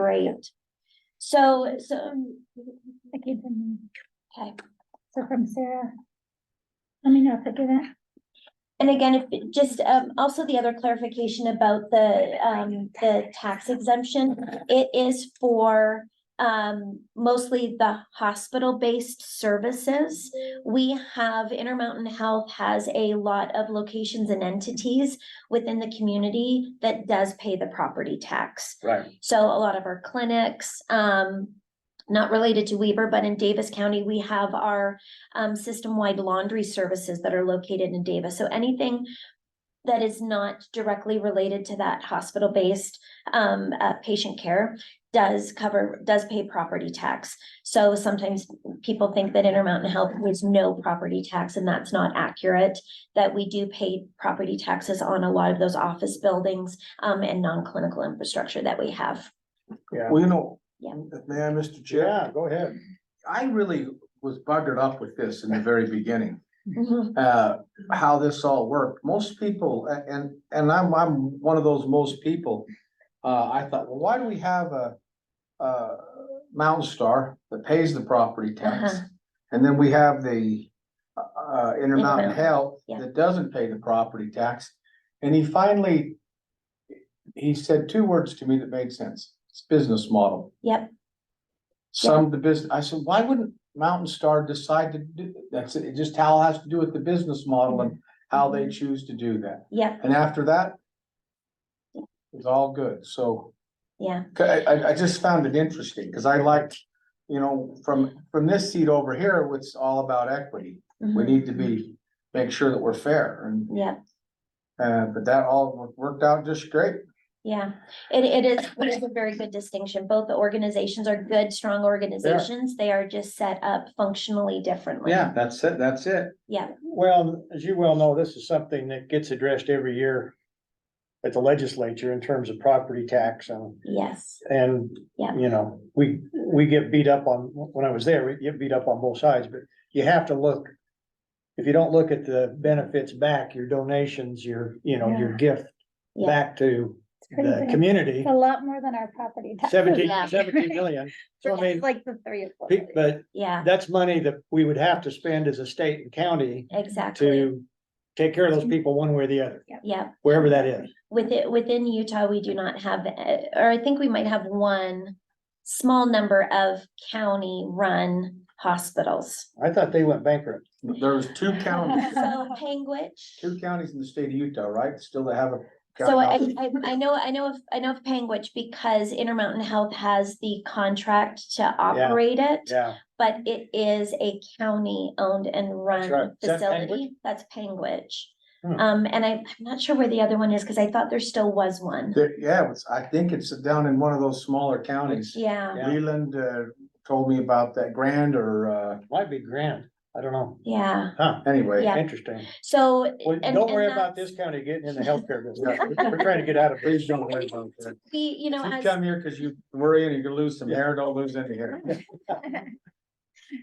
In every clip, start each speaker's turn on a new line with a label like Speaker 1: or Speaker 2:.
Speaker 1: Great. So, so,
Speaker 2: I gave them,
Speaker 1: okay.
Speaker 2: so from Sarah. Let me know if I get it.
Speaker 1: And again, if, just, um, also the other clarification about the, um, the tax exemption, it is for. Um, mostly the hospital-based services. We have Intermountain Health has a lot of locations and entities within the community that does pay the property tax.
Speaker 3: Right,
Speaker 1: So a lot of our clinics, um, not related to Weber, but in Davis County, we have our um system-wide laundry services that are located in Davis. So anything that is not directly related to that hospital-based um uh, patient care does cover, does pay property tax. So sometimes people think that Intermountain Health was no property tax, and that's not accurate. That we do pay property taxes on a lot of those office buildings um, and non-clinical infrastructure that we have.
Speaker 3: yeah.
Speaker 4: Well, you know.
Speaker 1: Yeah.
Speaker 4: May I, Mr. Chair?
Speaker 3: Yeah, go ahead.
Speaker 4: I really was buggered up with this in the very beginning,
Speaker 1: Mm-hmm.
Speaker 4: uh, how this all worked. Most people, a- and, and I'm, I'm one of those most people. Uh, I thought, well, why do we have a, uh, Mountain Star that pays the property tax?
Speaker 1: Uh-huh.
Speaker 4: And then we have the, uh, Intermountain
Speaker 1: Intermountain,
Speaker 4: Health
Speaker 1: yeah.
Speaker 4: that doesn't pay the property tax. And he finally, he said two words to me that made sense. It's business model.
Speaker 1: Yep,
Speaker 4: some of the business, I said, why wouldn't Mountain Star decide to do, that's it, it just how it has to do with the business model and how they
Speaker 1: Mm-hmm.
Speaker 4: choose to do that,
Speaker 1: yep,
Speaker 4: and after that. It's all good, so,
Speaker 1: yeah,
Speaker 4: 'cause I, I, I just found it interesting, cause I liked, you know, from, from this seat over here, it's all about equity. We
Speaker 1: mhm,
Speaker 4: need to be, make sure that we're fair, and,
Speaker 1: yep,
Speaker 4: uh, but that all worked out just great.
Speaker 1: yeah. It, it is, it is a very good distinction. Both the organizations are good, strong organizations. They are just set up functionally differently.
Speaker 4: that's it, that's it.
Speaker 1: Yeah,
Speaker 3: Well, as you well know, this is something that gets addressed every year at the legislature in terms of property tax and,
Speaker 1: yes,
Speaker 3: and,
Speaker 1: Yeah.
Speaker 3: you know, we, we get beat up on, when I was there, we get beat up on both sides, but you have to look. If you don't look at the benefits back, your donations, your, you know, your gift
Speaker 1: yeah,
Speaker 3: back to
Speaker 2: It's pretty
Speaker 3: the
Speaker 2: big.
Speaker 3: community,
Speaker 2: It's a lot more than our property. tax.
Speaker 3: seventeen,
Speaker 1: Yeah.
Speaker 3: seventeen million. So I mean,
Speaker 2: Like the three or four.
Speaker 3: pe- but
Speaker 1: yeah,
Speaker 3: that's money that we would have to spend as a state and county
Speaker 1: exactly.
Speaker 3: to take care of
Speaker 1: Mm-hmm.
Speaker 3: those people one way or the other,
Speaker 1: Yeah,
Speaker 3: wherever that is.
Speaker 1: with it, within Utah, we do not have, uh, or I think we might have one small number of county-run hospitals.
Speaker 3: I thought they went bankrupt.
Speaker 4: There's two counties,
Speaker 1: So Panguitch.
Speaker 4: two counties in the state of Utah, right, still they have a.
Speaker 1: So I,
Speaker 4: county
Speaker 1: I, I know, I know of, I know of Panguitch because Intermountain Health has the contract to operate it.
Speaker 3: Yeah.
Speaker 1: But it is a county-owned and
Speaker 3: right.
Speaker 1: run
Speaker 3: Is that Panguitch?
Speaker 1: facility. That's Panguitch.
Speaker 3: Hmm.
Speaker 1: Um, and I, I'm not sure where the other one is because I thought there still was one.
Speaker 4: There- yeah, it's, I think it's down in one of those smaller counties.
Speaker 1: Yeah,
Speaker 3: Yeah.
Speaker 4: Leland, uh, told me about that Grand or, uh,
Speaker 3: Might be grand. I don't know.
Speaker 1: yeah.
Speaker 3: Huh,
Speaker 4: anyway.
Speaker 1: Yeah.
Speaker 3: interesting.
Speaker 1: So.
Speaker 3: Well,
Speaker 1: and-
Speaker 3: don't
Speaker 1: and
Speaker 3: worry about
Speaker 1: that's-
Speaker 3: this county getting in the healthcare business. We're trying to get out of it.
Speaker 4: Please don't worry about that.
Speaker 1: We, you know,
Speaker 4: If You
Speaker 1: as.
Speaker 4: come here because you worry and you're gonna lose some hair, don't lose any hair.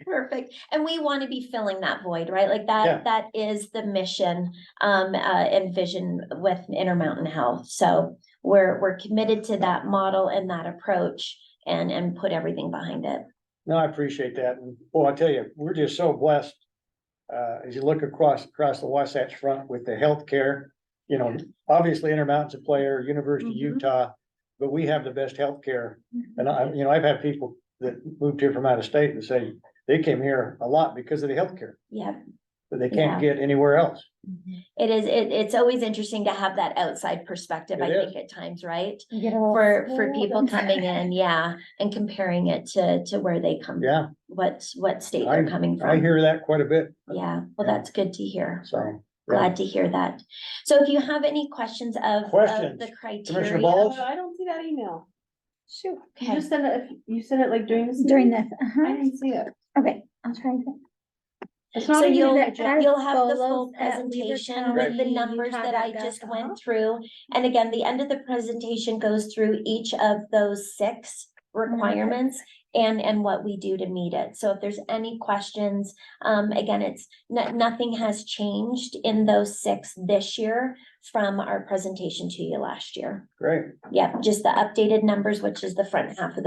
Speaker 1: Perfect. And we want to be filling that void, right? Like
Speaker 3: Yeah.
Speaker 1: that, that is the mission um uh and vision with Intermountain Health. So we're, we're committed to that model and that approach and, and put everything behind it.
Speaker 3: No, I appreciate that. And boy, I tell you, we're just so blessed. Uh, as you look across, across the Wasatch Front with the healthcare, you know, obviously Intermountain's a player, University of
Speaker 1: Mhm.
Speaker 3: Utah. But we have the best healthcare And I, you know, I've had people that moved here from out of state that say they came here a lot because of the healthcare,
Speaker 1: Yeah.
Speaker 3: that they can't get anywhere else.
Speaker 1: It is, it, it's always interesting to have that outside perspective,
Speaker 3: It
Speaker 1: I
Speaker 3: is.
Speaker 1: think at times, right?
Speaker 2: You get a little
Speaker 1: For, for
Speaker 2: spoiled
Speaker 1: people
Speaker 2: and-
Speaker 1: coming in, yeah, and comparing it to, to where they come,
Speaker 3: Yeah,
Speaker 1: what, what state they're coming
Speaker 3: I
Speaker 1: from.
Speaker 3: hear that quite a bit,
Speaker 1: Yeah, well,
Speaker 3: Yeah.
Speaker 1: that's good to hear.
Speaker 3: so. yeah.
Speaker 1: Glad to hear that. So if you have any questions of, of
Speaker 3: Questions?
Speaker 1: the
Speaker 3: Commissioner
Speaker 1: criteria.
Speaker 3: Ball?
Speaker 5: Uh, I don't see that email.
Speaker 2: Shoot,
Speaker 5: You
Speaker 1: Okay.
Speaker 5: just sent it, you sent it like during this.
Speaker 2: During
Speaker 5: meeting?
Speaker 2: this,
Speaker 5: I
Speaker 2: uh-huh,
Speaker 5: didn't see it.
Speaker 2: okay, I'll try again.
Speaker 5: It's
Speaker 1: So
Speaker 5: not even
Speaker 1: you'll,
Speaker 5: in the
Speaker 2: that
Speaker 5: agenda.
Speaker 2: I-
Speaker 1: you'll have the full
Speaker 2: Solos at Weaver
Speaker 1: presentation with the
Speaker 2: County,
Speaker 1: numbers that I
Speaker 2: Utah.gov,
Speaker 1: just
Speaker 2: uh-huh.
Speaker 1: went through. And again, the end of the presentation goes through each of those six requirements and, and what we do to meet it. So if there's any questions, um, again, it's, no, nothing has changed in those six this year from our presentation to you last year.
Speaker 3: Great.
Speaker 1: Yep, just the updated numbers, which is the front half of the